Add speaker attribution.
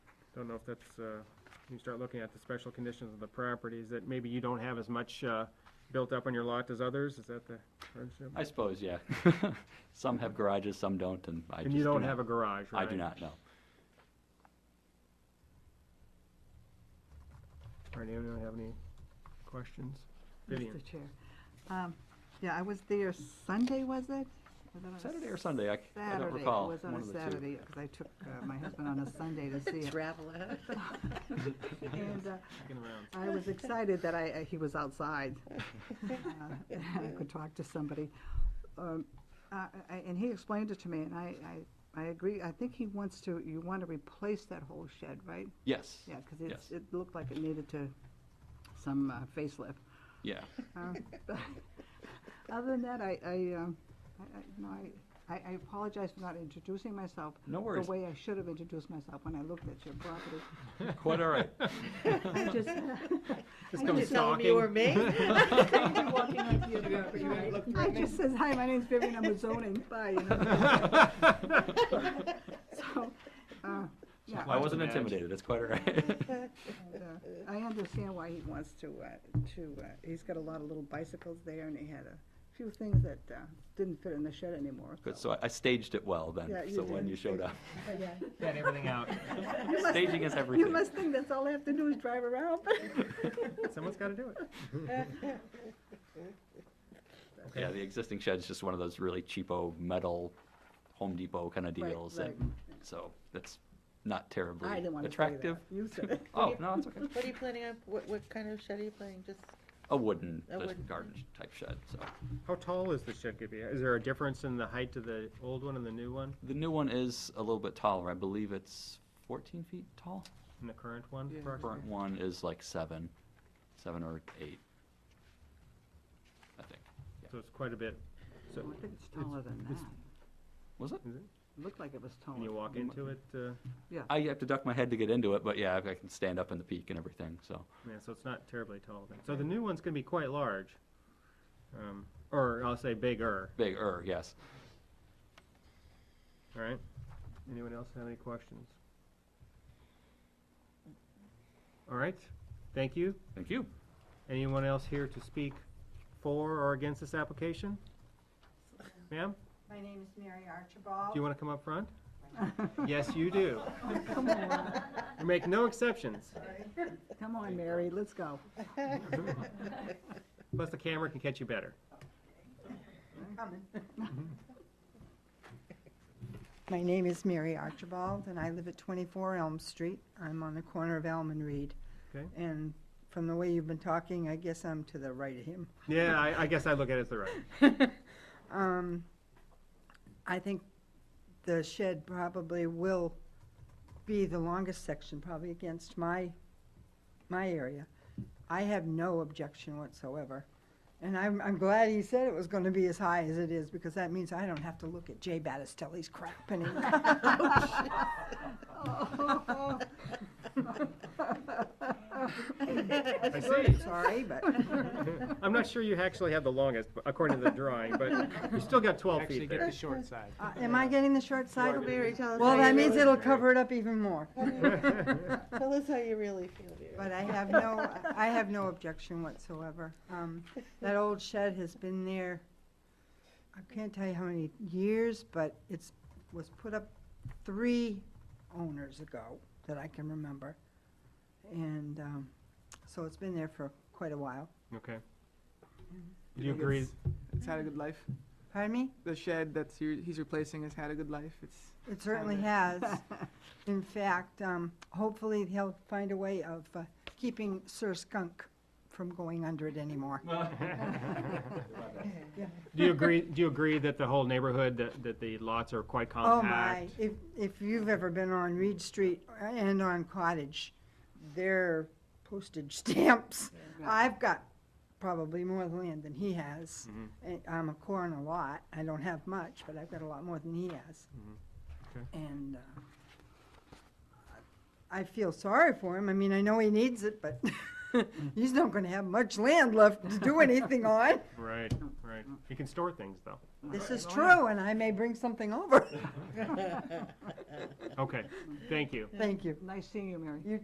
Speaker 1: don't know if that's, uh, you start looking at the special conditions of the properties, that maybe you don't have as much, uh, built up on your lot as others, is that the hardship?
Speaker 2: I suppose, yeah. Some have garages, some don't, and I just
Speaker 1: And you
Speaker 2: do
Speaker 1: don't
Speaker 2: not-
Speaker 1: have a garage,
Speaker 2: I
Speaker 1: right?
Speaker 2: do not know.
Speaker 1: All right, anyone have any questions? Vivian?
Speaker 3: Mr. Chair. Um, Yeah, I was there Sunday, was it? Was it on a
Speaker 2: Saturday or Sunday, I c- I don't
Speaker 3: Saturday.
Speaker 2: recall.
Speaker 3: It was on
Speaker 2: one
Speaker 3: a
Speaker 2: of the two.
Speaker 3: Saturday, because I took uh, my husband on a Sunday to see it.
Speaker 4: Travel ahead.
Speaker 3: And uh,
Speaker 1: Second round.
Speaker 3: I was excited that I, I- he was outside. uh, and I could talk to somebody. Um, uh, I- And he explained it to me, and I, I, I agree. I think he wants to, you want to replace that whole shed, right?
Speaker 2: Yes,
Speaker 3: Yeah, because it's,
Speaker 2: Yes.
Speaker 3: it looked like it needed to, some uh, facelift.
Speaker 2: yeah.
Speaker 3: Uh, but Other than that, I, I, um, I- I, no, I, I I apologize for not introducing myself.
Speaker 2: No worries.
Speaker 3: The way I should have introduced myself when I looked at your property.
Speaker 2: Quite all right.
Speaker 3: I just,
Speaker 1: Just
Speaker 4: You
Speaker 1: come
Speaker 4: didn't tell him you were
Speaker 1: stalking.
Speaker 4: me.
Speaker 3: I just says, hi, my name's Vivian, I'm with zoning, bye, you know. So, uh, yeah.
Speaker 2: I
Speaker 1: Imagine.
Speaker 2: wasn't intimidated, it's quite all right.
Speaker 3: and, uh, I understand why he wants to, uh, to, uh, he's got a lot of little bicycles there and he had a few things that, uh, didn't fit in the shed anymore.
Speaker 2: Good, so I- I staged it well then,
Speaker 3: Yeah, you
Speaker 2: so when
Speaker 3: did.
Speaker 2: you showed up.
Speaker 3: Yeah.
Speaker 1: Got everything out.
Speaker 3: You must-
Speaker 2: Staging is
Speaker 3: You
Speaker 2: everything.
Speaker 3: must think that's all I have to do is drive around.
Speaker 1: Someone's gotta do it.
Speaker 2: Yeah, the existing shed's just one of those really cheapo metal Home Depot kind of
Speaker 3: Right,
Speaker 2: deals.
Speaker 3: right.
Speaker 2: that- So that's not terribly
Speaker 3: I didn't want to say that.
Speaker 2: attractive.
Speaker 3: You said it.
Speaker 2: Oh, no, it's okay.
Speaker 4: What are you planning on, what, what kind of shed are you planning, just?
Speaker 2: A wooden
Speaker 4: A
Speaker 2: just
Speaker 4: wooden-
Speaker 2: garden type shed, so.
Speaker 1: How tall is the shed gonna be? Is there a difference in the height of the old one and the new one,
Speaker 2: The new one is a little bit taller. I believe it's 14 feet tall.
Speaker 1: and the current one
Speaker 4: Yeah.
Speaker 2: Current
Speaker 1: approximately?
Speaker 2: one is like seven, seven or eight, I think.
Speaker 1: So it's quite a bit. So,
Speaker 3: I think it's taller than that.
Speaker 1: it's-
Speaker 2: Was it?
Speaker 1: is it?
Speaker 3: It looked like it was taller.
Speaker 1: Can you walk into it? uh,
Speaker 2: I have to duck my head to get into it, but yeah, I can stand up in the peak and everything, so.
Speaker 1: Yeah, so it's not terribly tall then. So the new one's gonna be quite large. Um, or I'll say bigger,
Speaker 2: Bigger, er, yes.
Speaker 1: all right? Anyone else have any questions? All right, thank you.
Speaker 2: Thank you.
Speaker 1: Anyone else here to speak for or against this application? Ma'am,
Speaker 5: My name is Mary
Speaker 1: do
Speaker 5: Archibald.
Speaker 1: you wanna come up front? Yes, you do. You make no exceptions.
Speaker 3: Come on, Mary, let's go.
Speaker 1: Plus the camera can catch you better.
Speaker 5: Coming. My name is Mary Archibald, and I live at 24 Elm Street. I'm on the corner of Elm and Reed.
Speaker 1: Okay.
Speaker 5: And from the way you've been talking, I guess I'm to the right of him.
Speaker 1: Yeah, I, I guess I look at it as the right.
Speaker 5: Um, I think the shed probably will be the longest section, probably against my, my area. I have no objection whatsoever. And I'm, I'm glad he said it was gonna be as high as it is, because that means I don't have to look at Jay Battistelli's crap anymore.
Speaker 1: Oh, I see.
Speaker 5: Sorry, but
Speaker 1: I'm not sure you actually had the longest, but- according to the drawing, but you still got 12
Speaker 6: Actually
Speaker 1: feet
Speaker 6: get the
Speaker 1: there.
Speaker 6: short side.
Speaker 5: uh, am I getting the short side?
Speaker 4: Mary, tell us.
Speaker 5: Well,
Speaker 4: how
Speaker 5: that
Speaker 4: you
Speaker 5: means
Speaker 4: really-
Speaker 5: it'll cover it up even more.
Speaker 4: Tell us how you really feel, Mary.
Speaker 5: But I have no, I have no objection whatsoever. Um, That old shed has been there, I can't tell you how many years, but it's, was put up three owners ago that I can remember. And um, so it's been there for quite a while.
Speaker 1: Okay. Do you agree?
Speaker 6: It's had a good life.
Speaker 5: Pardon me?
Speaker 6: The shed that's he- he's replacing has had a good life. It's
Speaker 5: It certainly has. In fact, um, hopefully he'll find a way of uh, keeping Sir Skunk from going under it anymore.
Speaker 1: Do you agree, do you agree that the whole neighborhood, that, that the lots are quite
Speaker 5: Oh, my,
Speaker 1: compact?
Speaker 5: if, if you've ever been on Reed Street and on Cottage, they're postage stamps. I've got probably more land than he has.
Speaker 1: Mhm.
Speaker 3: Mm-hmm.
Speaker 5: And I'm a corn a lot, I don't have much, but I've got a lot more than he has.
Speaker 3: Mm-hmm.
Speaker 1: Okay.
Speaker 5: And, uh, I feel sorry for him, I mean, I know he needs it, but He's not gonna have much land left to do anything on.
Speaker 1: Right, right. You can store things, though.
Speaker 5: This
Speaker 3: oh,
Speaker 5: is true, and I may bring something over.
Speaker 1: Okay, thank you.
Speaker 5: Thank you.
Speaker 3: Nice seeing you, Mary.
Speaker 5: You